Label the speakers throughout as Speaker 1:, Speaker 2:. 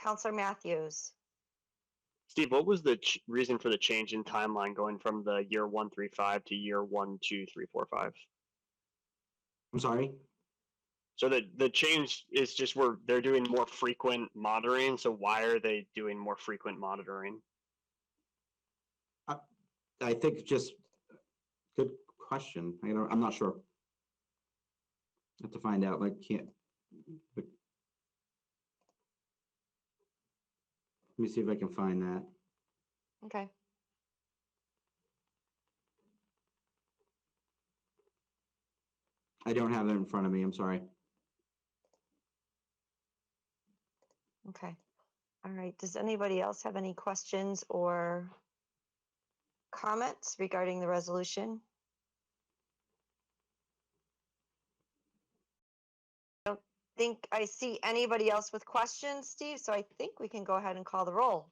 Speaker 1: Counselor Matthews.
Speaker 2: Steve, what was the ch- reason for the change in timeline going from the year one three five to year one two three four five?
Speaker 3: I'm sorry?
Speaker 2: So the the change is just we're they're doing more frequent monitoring. So why are they doing more frequent monitoring?
Speaker 3: I think just, good question. I don't, I'm not sure. Have to find out, like, can't. but- Let me see if I can find that.
Speaker 1: Okay.
Speaker 3: I don't have it in front of me, I'm sorry.
Speaker 1: Okay. All right. Does anybody else have any questions or comments regarding the resolution? Don't think I see anybody else with questions, Steve, so I think we can go ahead and call the roll.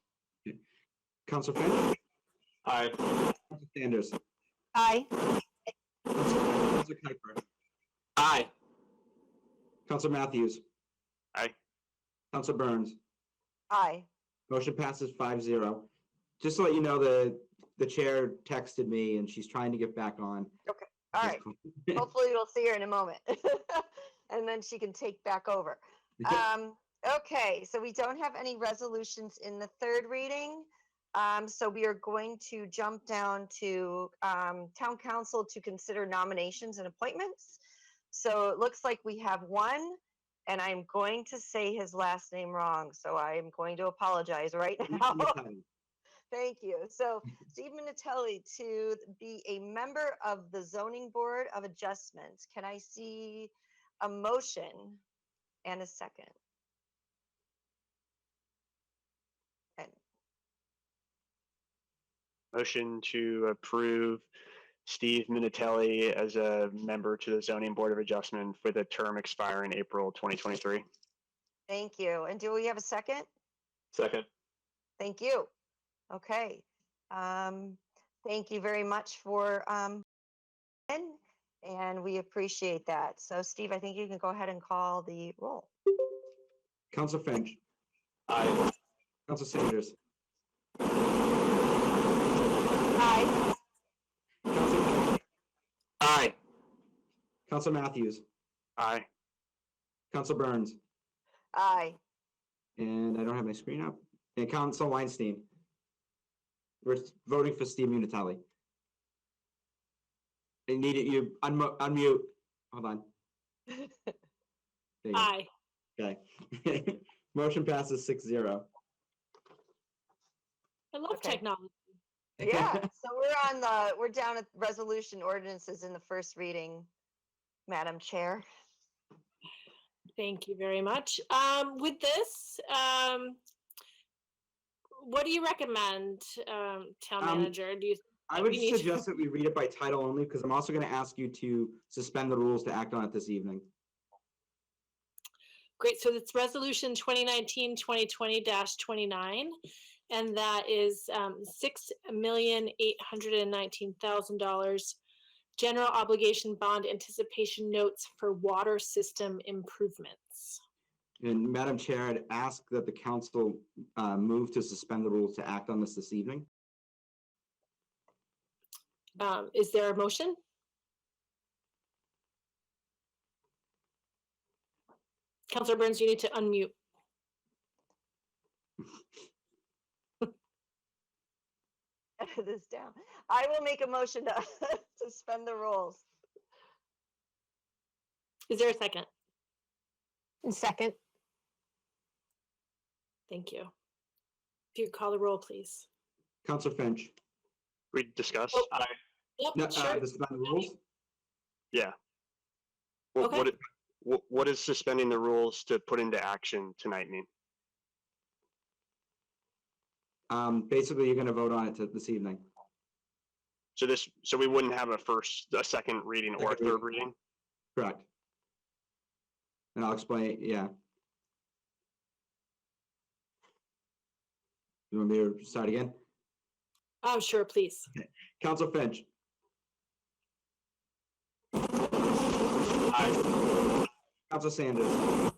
Speaker 3: Counselor Finch,
Speaker 2: Aye.
Speaker 3: Counselor Sanders,
Speaker 1: Aye.
Speaker 3: Counselor Kuiper,
Speaker 2: Aye.
Speaker 3: Counselor Matthews.
Speaker 2: Aye.
Speaker 3: Counselor Burns.
Speaker 1: Aye.
Speaker 3: Motion passes five zero. Just to let you know, the, the chair texted me and she's trying to get back on.
Speaker 1: All right. Hopefully we'll see her in a moment. And then she can take back over. Um, okay, so we don't have any resolutions in the third reading. Um, so we are going to jump down to, um, town council to consider nominations and appointments. So it looks like we have one, and I'm going to say his last name wrong, so I am going to apologize right now. Thank you. So Steve Minatelli to be a member of the zoning board of adjustments. Can I see a motion and a second?
Speaker 2: Motion to approve Steve Minatelli as a member to the zoning board of adjustment with a term expiring April twenty twenty three.
Speaker 1: Thank you. And do we have a second?
Speaker 2: Second.
Speaker 1: Thank you. Okay. Um, thank you very much for, um, and- and we appreciate that. So Steve, I think you can go ahead and call the roll.
Speaker 3: Counselor Finch,
Speaker 2: Aye.
Speaker 3: Counselor Sanders,
Speaker 1: Aye.
Speaker 3: Counselor,
Speaker 2: Aye.
Speaker 3: Counselor Matthews,
Speaker 2: Aye.
Speaker 3: Counselor Burns,
Speaker 1: Aye.
Speaker 3: and I don't have my screen up, and Counselor Weinstein. We're voting for Steve Unitelli. I need it, you unmo- unmute, hold on. There you go.
Speaker 4: Aye.
Speaker 3: Okay. Motion passes six zero.
Speaker 4: I love
Speaker 1: Okay.
Speaker 4: technology.
Speaker 1: Yeah, so we're on the, we're down at resolution ordinances in the first reading, Madam Chair.
Speaker 4: Thank you very much. Um, with this, um, what do you recommend, um, town
Speaker 3: Um,
Speaker 4: manager? Do you,
Speaker 3: I would
Speaker 4: We need to-
Speaker 3: suggest that we read it by title only, because I'm also gonna ask you to suspend the rules to act on it this evening.
Speaker 4: great, so it's resolution 2019, 2020 twenty-nine. And that is, um, six million, eight hundred and nineteen thousand dollars. General obligation bond anticipation notes for water system improvements.
Speaker 3: And Madam Chair, I'd ask that the council uh, move to suspend the rules to act on this this evening.
Speaker 4: Um, is there a motion? Counselor Burns, you need to unmute.
Speaker 1: Edit this down. I will make a motion to suspend the rules.
Speaker 4: Is there a second?
Speaker 5: Second,
Speaker 4: Thank you. If you could call the roll, please.
Speaker 3: Counselor Finch?
Speaker 2: We discussed.
Speaker 4: Oh.
Speaker 2: Aye.
Speaker 3: No,
Speaker 4: Yep,
Speaker 3: uh,
Speaker 4: sure.
Speaker 3: the suspend the rules?
Speaker 2: What,
Speaker 4: Okay.
Speaker 2: what, it- what, what is suspending the rules to put into action tonight mean?
Speaker 3: Um, basically, you're gonna vote on it to- this evening.
Speaker 2: So this, so we wouldn't have a first, a second reading or a
Speaker 3: Second
Speaker 2: third
Speaker 3: reading.
Speaker 2: reading?
Speaker 3: Correct. And I'll explain, yeah. You want me to start again?
Speaker 4: Oh, sure, please.
Speaker 3: Counselor Finch? Counselor Sanders?